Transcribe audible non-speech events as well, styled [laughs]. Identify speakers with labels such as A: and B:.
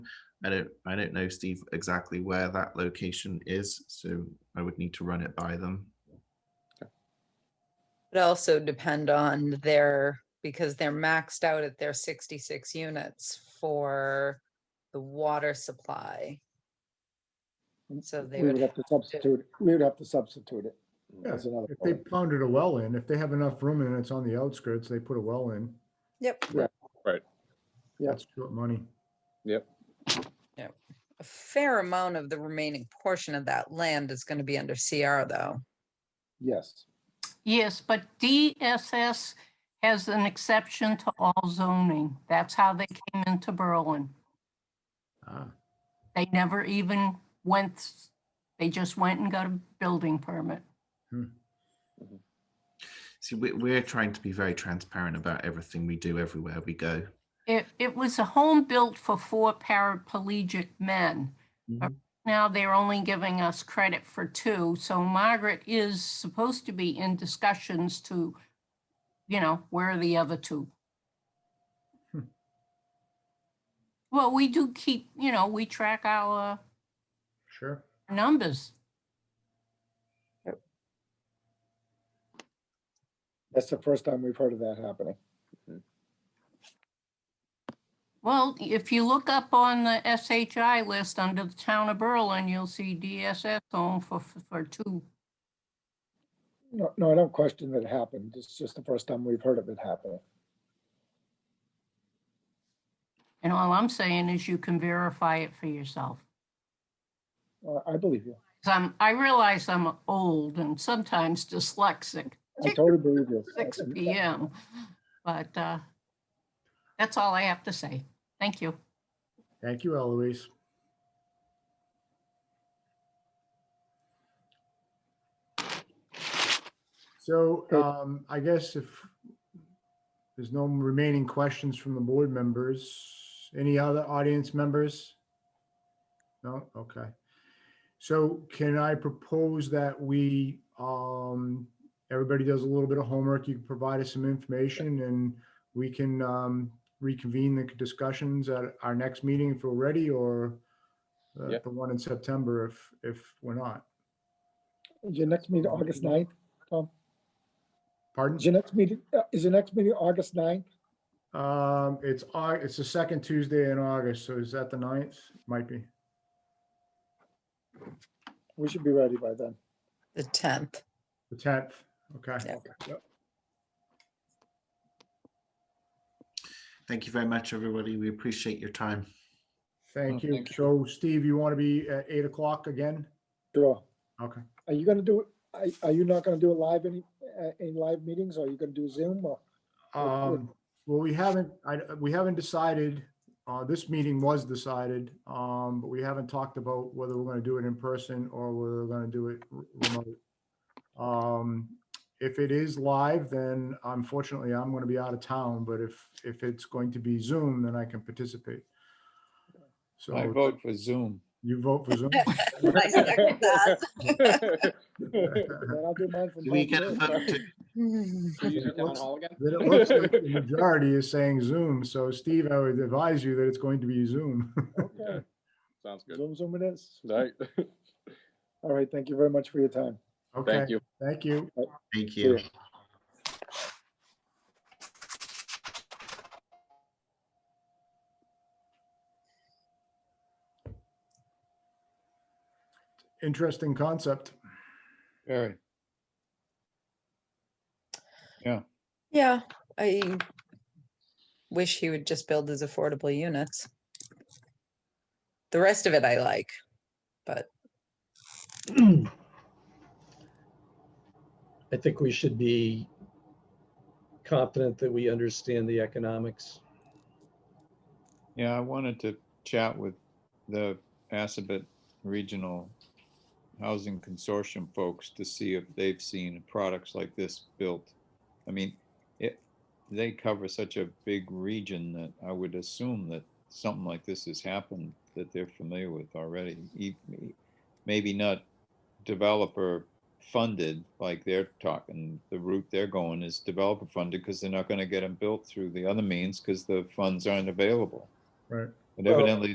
A: I don't, I don't know, Steve, exactly where that location is, so I would need to run it by them.
B: It also depend on their, because they're maxed out at their sixty-six units for the water supply. And so they
C: We would
B: would,
C: have to substitute, we would have to substitute it.
D: Yeah,
C: That's another
D: If they
C: point.
D: pounded a well in, if they have enough room and it's on the outskirts, they put a well in.
B: yep,
C: Yeah.
D: That's short money.
B: a fair amount of the remaining portion of that land is gonna be under CR though.
C: Yes,
E: Yes, but DSS has an exception to all zoning. That's how they came into Berlin.
A: Uh,
D: Ah,
E: They never even went, s- they just went and got a building permit.
A: See, we, we're trying to be very transparent about everything we do everywhere we go.
E: It, it was a home built for four paraplegic men.
A: Mhm.
E: Now they're only giving us credit for two. So Margaret is supposed to be in discussions to, you know, where are the other two?
D: Hmm.
E: Well, we do keep, you know, we track our
D: sure.
E: numbers.
C: that's the first time we've heard of that happening.
E: Well, if you look up on the SHI list under the town of Berlin, you'll see DSS home for, for two.
C: No, no, I don't question that it happened. It's just the first time we've heard of it happening.
E: And all I'm saying is you can verify it for yourself.
C: Uh, I believe you.
E: 'Cause I'm, I realize I'm old and sometimes dyslexic,
C: I totally believe you.
E: six PM. But uh, that's all I have to say. Thank you.
D: Thank you, Eloise. So
C: Okay.
D: um, I guess if there's no remaining questions from the board members, any other audience members? No, okay. So can I propose that we, um, everybody does a little bit of homework, you can provide us some information and we can um, reconvene the discussions at our next meeting if we're ready or uh,
F: Yeah.
D: the one in September if, if we're not.
C: Is your next meeting August 9th? Is
D: Pardon?
C: your next meeting, uh, is your next meeting August 9th?
D: Um, it's, Au- it's the second Tuesday in August, so is that the ninth? Might be.
C: We should be ready by then.
B: The tenth,
D: The tenth, okay.
B: Yeah.
D: Yep.
A: Thank you very much, everybody. We appreciate your time.
D: Thank
F: Oh,
D: you.
F: thank you.
D: So Steve, you want to be at eight o'clock again?
C: Sure.
D: Okay.
C: Are you gonna do, it? are, are you not gonna do it live any, uh, in live meetings? Or are you gonna do Zoom
D: [laughs]
C: or? Well,
D: Um, well, we haven't, I, we haven't decided, uh, this meeting was decided, um, but we haven't talked about whether we're gonna do it in person or whether we're gonna do it r- remote. Um, if it is live, then unfortunately, I'm gonna be out of town, but if, if it's going to be Zoom, then I can participate.
F: I
D: So
F: vote for Zoom. [laughs]
D: you vote for Zoom?
B: I second that.
C: Then I'll do mine from
A: Do we
C: home
A: get a
C: too.
A: vote to
F: Do you use the town
D: Looks-
F: hall again?
D: Then it looks like the majority is saying Zoom, so Steve, I would advise you that it's going to be Zoom. [laughs]
C: Okay.
F: Sounds good.
C: Zoom, Zoom it is.
F: Right. [laughs]
C: All right, thank you very much for your time.
D: Okay,
F: Thank you.
D: thank you.
A: Thank you.
D: Interesting concept.
F: Very.
B: Yeah, I wish he would just build his affordable units. The rest of it I like, but
G: I think we should be confident that we understand the economics.
F: Yeah, I wanted to chat with the Assabet Regional Housing Consortium folks to see if they've seen products like this built. I mean, it, they cover such a big region that I would assume that something like this has happened that they're familiar with already. E- Maybe not developer funded like they're talking, the route they're going is developer funded because they're not gonna get them built through the other means because the funds aren't available.
D: Right.
F: But
C: Well-
F: evidently